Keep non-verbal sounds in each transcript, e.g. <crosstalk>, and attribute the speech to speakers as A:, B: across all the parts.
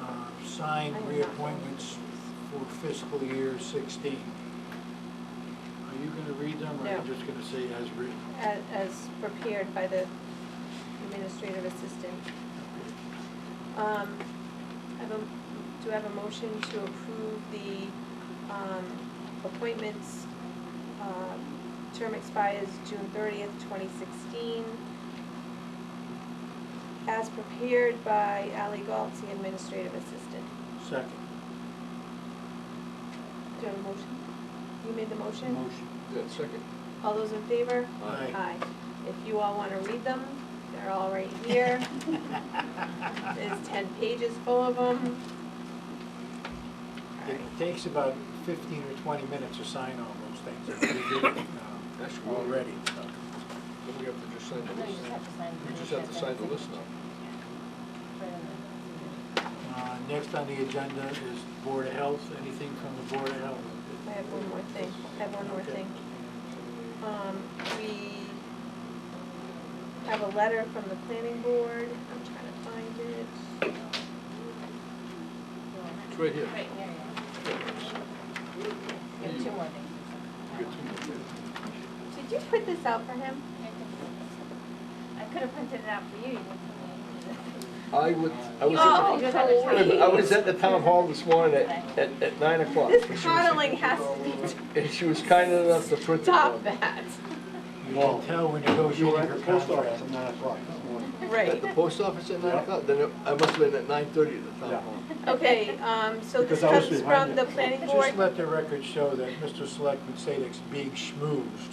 A: Uh, signed reappointments for fiscal year sixteen. Are you gonna read them, or are
B: No.
A: you just gonna say as written?
B: as, as prepared by the administrative assistant. Um, I have a, do I have a motion to approve the, um, appointments? Um, Term expires June thirtieth, twenty sixteen. As prepared by Ally Galtz, the administrative assistant.
A: Second.
B: Do I have a motion? You made the motion?
A: Motion.
C: Yeah, second.
B: All those in favor?
A: Aye.
B: If you all wanna read them, they're all right here. There's
D: <laughs>
B: ten pages full of them.
A: It takes about fifteen or twenty minutes to sign all those things. We did it, uh,
C: That's cool.
A: Already, so.
C: Then we have to just sign the
E: No, you
C: list.
E: just have to sign.
C: We just have to sign the list now.
A: Uh, Next on the agenda is Board of Health, anything from the Board of Health?
B: I have one more thing, I have one more
A: Okay.
B: thing. Um, we have a letter from the planning board, I'm trying to find it.
C: It's right here.
E: Right, yeah, yeah. You have two more
C: You get
E: things.
C: two more there.
B: Did you put this out for him?
E: I could have printed it out for you. you didn't tell me.
C: I would, I was,
B: Oh,
C: at
E: You just had to
C: the- wait a minute, I was at the town hall this morning at,
E: Okay.
C: at, at nine o'clock. and she
B: This
C: was-
B: coddling has to be,
C: And she was kind enough to print it
B: <laughs> stop
C: out.
B: that,
D: <laughs>
A: You can tell we're negotiating
D: You're at
A: her
D: the post office
A: contract.
D: at nine o'clock this morning.
C: At
B: right.
C: the post office at nine o'clock, then it- I must have been at nine thirty at the
D: Yeah.
C: town hall.
B: Okay, um, so this
D: Because I was
B: comes
D: behind
B: from
D: you.
B: the planning board.
A: Just let the record show that Mr. Selectman Sadek's being
B: <laughs>
A: schmoozed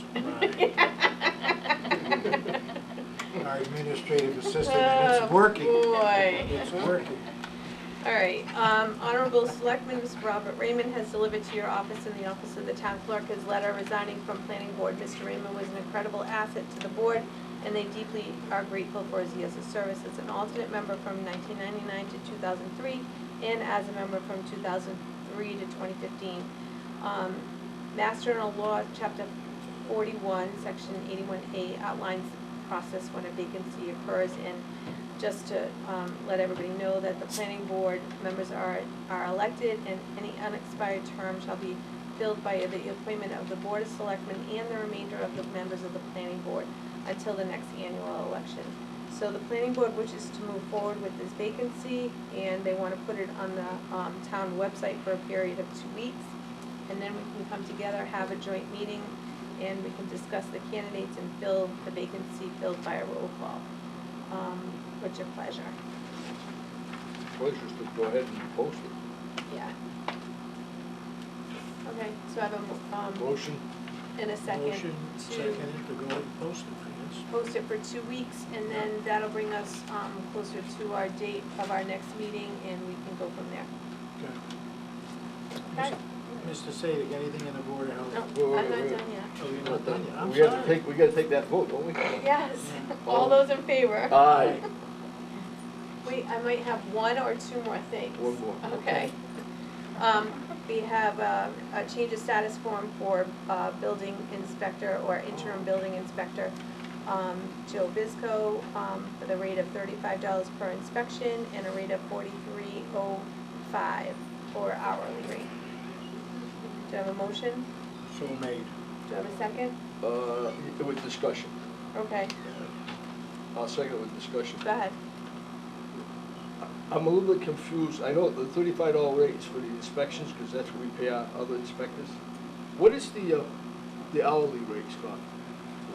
A: by our administrative assistant, and
B: Oh,
A: it's working.
B: boy.
A: It's working.
B: All right, um, Honorable Selectman Mr. Robert Raymond has delivered to your office and the office of the town clerk his letter resigning from planning board. Mr. Raymond was an incredible asset to the board, and they deeply are grateful for his years of service as an alternate member from nineteen ninety-nine to two thousand three, and as a member from two thousand three to twenty fifteen. Um, Mass General Law, Chapter forty-one, Section eighty-one A outlines the process when a vacancy occurs, and just to um, let everybody know that the planning board members are, are elected, and any unexpired term shall be filled by the appointment of the board of selectmen and the remainder of the members of the planning board until the next annual election. So the planning board wishes to move forward with this vacancy, and they want to put it on the um, town website for a period of two weeks. And then we can come together, have a joint meeting, and we can discuss the candidates and fill the vacancy filled by a roll call. Um, what's your pleasure?
C: Pleasure's to go ahead and post it.
B: Yeah. Okay, so I have a, mo- um,
C: Motion,
B: in a second
A: Motion
B: to
A: seconded to go ahead and post it,
B: post it for two weeks, and then that'll bring us, um, closer to our date of our next meeting, and we can go from there.
A: I guess.
B: Okay.
A: Mr. Sadek, anything in the Board of Health?
B: No, I'm not done yet.
A: Oh, you're not done yet. I'm
C: we have to
A: sorry.
C: take, we gotta take that vote, don't we?
B: Yes, <laughs> all those in favor?
C: Aye.
B: Wait, I might have one or two more things.
C: One more.
B: Okay. Um, we have um, a change of status form for uh, building inspector or interim building inspector, um, Joe Bisco, um, for the rate of thirty-five dollars per inspection and a rate of forty-three oh five for hourly rate. Do I have a motion?
A: So made.
B: Do I have a second?
C: Uh, with discussion.
B: Okay,
C: I'll second with discussion.
B: go ahead.
C: I'm a little bit confused, I know the thirty-five dollar rate is for the inspections, because that's what we pay our other inspectors. What is the, uh, the hourly rate, Scott?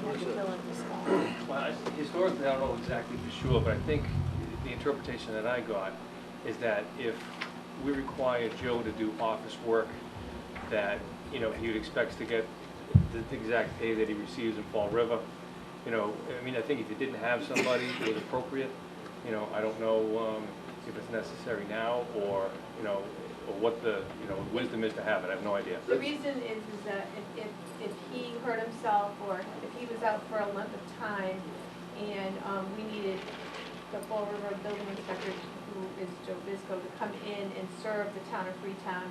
B: You
C: What
B: have
C: is
B: to
C: that?
B: fill in this form.
F: Well, I- historically, I don't know exactly for sure, but I think the interpretation that I got is that if we require Joe to do office work, that, you know, he expects to get the the exact pay that he receives in Fall River. You know, I mean, I think if you didn't have somebody, it was appropriate. You know, I don't know um, if it's necessary now or, you know, or what the, you know, wisdom is to have it. I have no idea.
B: The reason is, is that if, if, if he hurt himself or if he was out for a length of time and, um, we needed the Fall River Building Inspector, who is Joe Bisco, to come in and serve the town of Freetown,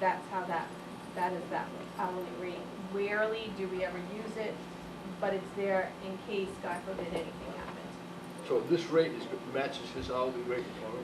B: that's how that, that is that hourly rate. Rarely do we ever use it, but it's there in case, God forbid, anything happens.
C: So this rate is, matches his hourly rate, all right?